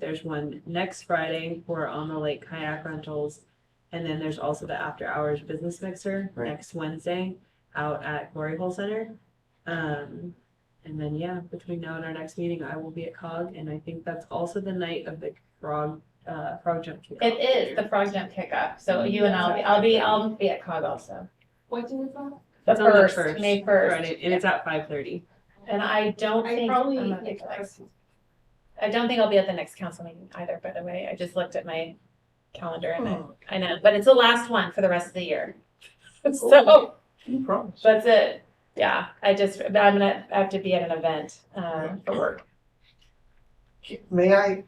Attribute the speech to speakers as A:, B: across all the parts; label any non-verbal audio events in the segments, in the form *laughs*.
A: There's one next Friday for on the lake kayak rentals. And then there's also the after hours business mixer
B: Right.
A: next Wednesday out at Glory Hole Center. Um, and then, yeah, between now and our next meeting, I will be at COG and I think that's also the night of the frog, uh, frog jump. kickoff.
C: It is the frog jump kickoff, so you and I'll, be I'll be, I'll be at COG also.
D: What do we call?
C: The
A: It's on the
C: first,
A: first,
C: May first.
A: Friday, and it's at five thirty.
C: And I don't
D: I
C: think,
D: probably.
C: I'm not- I don't think I'll be at the next council meeting either, by the way. I just looked at my calendar and
E: Hmm.
C: I, I know, but it's the last one for the rest of the year. *laughs* So,
B: You promise.
C: that's it. Yeah, I just, I'm gonna have to be at an event,
E: Mm-hmm.
C: um, for work.
B: May I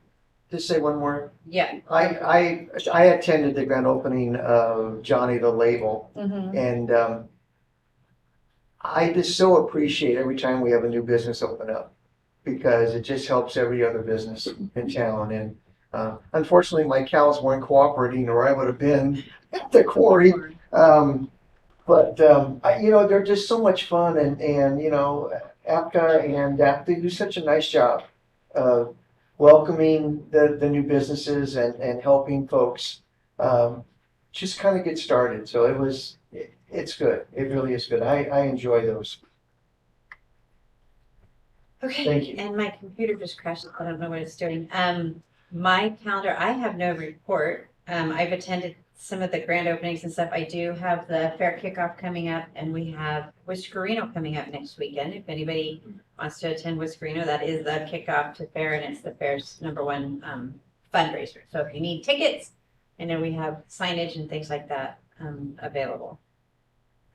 B: just say one more?
A: Yeah.
B: I, I, I attended the grand opening of Johnny the Label
C: Mhm.
B: and, um, I just so appreciate every time we have a new business open up because it just helps every other business in town. And, uh, unfortunately, my cows weren't cooperating or I would have been *laughs* at the quarry. Um, but um, I, you know, they're just so much fun, and and you know, APCA and that they do such a nice job of welcoming the the new businesses and and helping folks um, just kind of get started. So it was. It, it's good. It really is good. I, I enjoy those.
E: Okay,
B: Thank you.
E: and my computer just crashed, I don't know what it's doing. Um, my calendar, I have no report. Um, I've attended some of the grand openings and stuff. I do have the fair kickoff coming up and we have Whiskerino coming up next weekend. If anybody wants to attend Whiskerino, that is the kickoff to fair and it's the fair's number one, um, fundraiser. So if you need tickets, I know we have signage and things like that, um, available.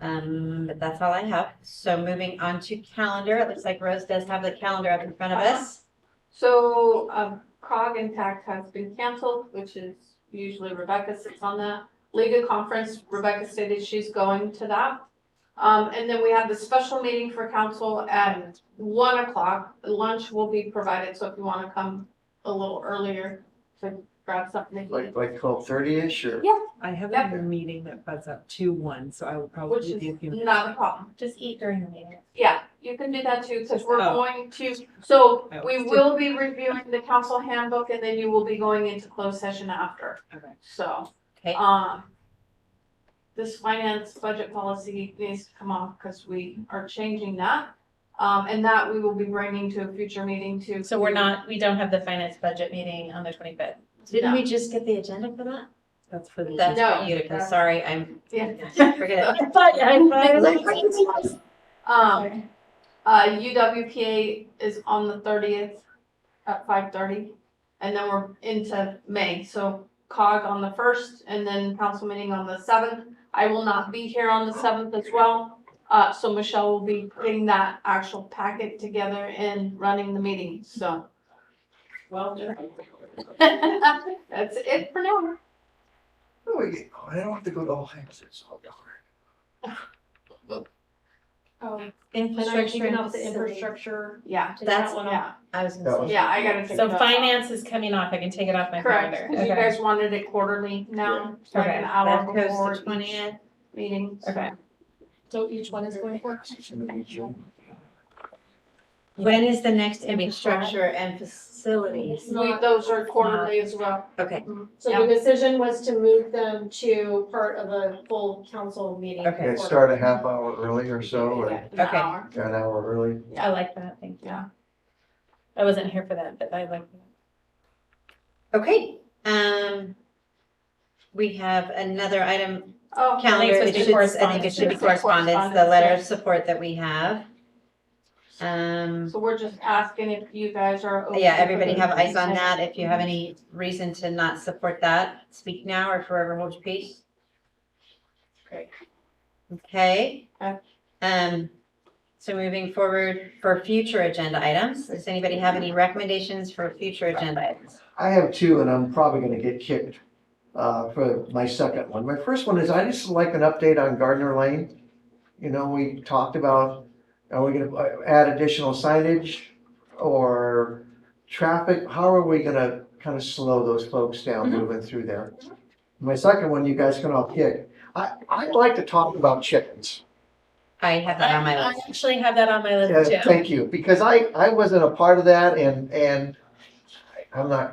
E: Um, but that's all I have. So moving on to calendar, it looks like Rose does have the calendar up in front of us.
D: So, um, COG Impact has been canceled, which is usually Rebecca sits on that. Legal conference, Rebecca stated she's going to that. Um, and then we have the special meeting for council at one o'clock. Lunch will be provided, so if you wanna come a little earlier to grab something. to eat.
B: Like like twelve thirty ish or
A: I have
D: Yeah.
A: a meeting that butts up to one, so I will
D: Which
A: probably be a
D: is
A: few.
D: not a problem.
C: Just eat during the meeting.
D: Yeah, you can do that too, because we're
A: Oh.
D: going to, so
A: I
D: we
A: was-
D: will be reviewing the council handbook and then you will be going into closed session after,
A: Okay.
D: so,
E: Okay,
D: um. This finance budget policy needs to come off because we are changing that, um, and that we will be bringing to a future meeting too.
C: So we're not, we don't have the finance budget meeting on the twenty-fifth.
E: didn't we just get the agenda for that?
A: That's for the.
E: That's
D: No.
E: for Utica, sorry, I'm,
D: Yeah.
E: forget it.
D: Um, uh, UWPA is on the thirtieth at five thirty, and then we're into May, so COG on the first, and then council meeting on the seventh. I will not be here on the seventh as well, uh, so Michelle will be putting that actual packet together and running the meeting, so. *laughs*
A: Well,
D: That's it for now.
B: Oh, yeah. Oh, I don't have to go to all hands. It's all darn.
E: Infrastructure and facilities.
C: infrastructure.
D: Yeah,
E: That's,
D: yeah,
E: I was
B: That
E: gonna
B: was-
E: say.
D: yeah, I gotta take that.
C: So finance is coming off. I can take it off my
D: Correct,
C: calendar.
D: 'cause you
C: Okay.
D: guys wanted it quarterly now, so like
C: Okay,
D: an
E: That
D: hour before
E: goes to
D: each
E: twentieth.
D: meeting. so.
C: Okay.
F: So each one is going for?
E: When is the next infrastructure and facilities?
D: We, those are quarterly as well.
E: Okay,
F: So the decision was to move them to part of a full council meeting.
E: Okay.
B: Yeah, start a half hour early or so, or
D: Yeah,
B: an
D: an
E: Okay.
D: hour.
B: hour early.
C: I like that. Thank you.
D: Yeah.
C: I wasn't here for that, but I like that.
E: okay, um, we have another item
D: Oh,
E: calendar,
C: Thanks, Mr.
E: it should, I think it
C: Correspondence.
E: should be
D: Mr.
E: correspondence, the
D: Correspondence,
E: letter of
D: yes.
E: support that we have. Um,
D: so we're just asking if you guys are. Oh, okay
E: yeah,
D: with
E: everybody
D: it.
E: have eyes on that, if you have any reason to not support that, speak now or forever hold your peace.
C: Great.
E: Okay.
D: Okay.
E: Um, so moving forward for future agenda items, does anybody have any recommendations for future agenda items?
B: I have two, and I'm probably gonna get kicked uh, for my second one. My first one is I just like an update on Gardner Lane. You know, we talked about, are we gonna uh, add additional signage or traffic? How are we gonna kind of slow those folks down moving through there? My second one, you guys can all kick. I, I'd like to talk about chickens. Uh,
E: I have that on my
C: I
E: list.
C: actually have that on my
B: Yeah,
C: list too.
B: Thank you, because I, I wasn't a part of that and, and I'm not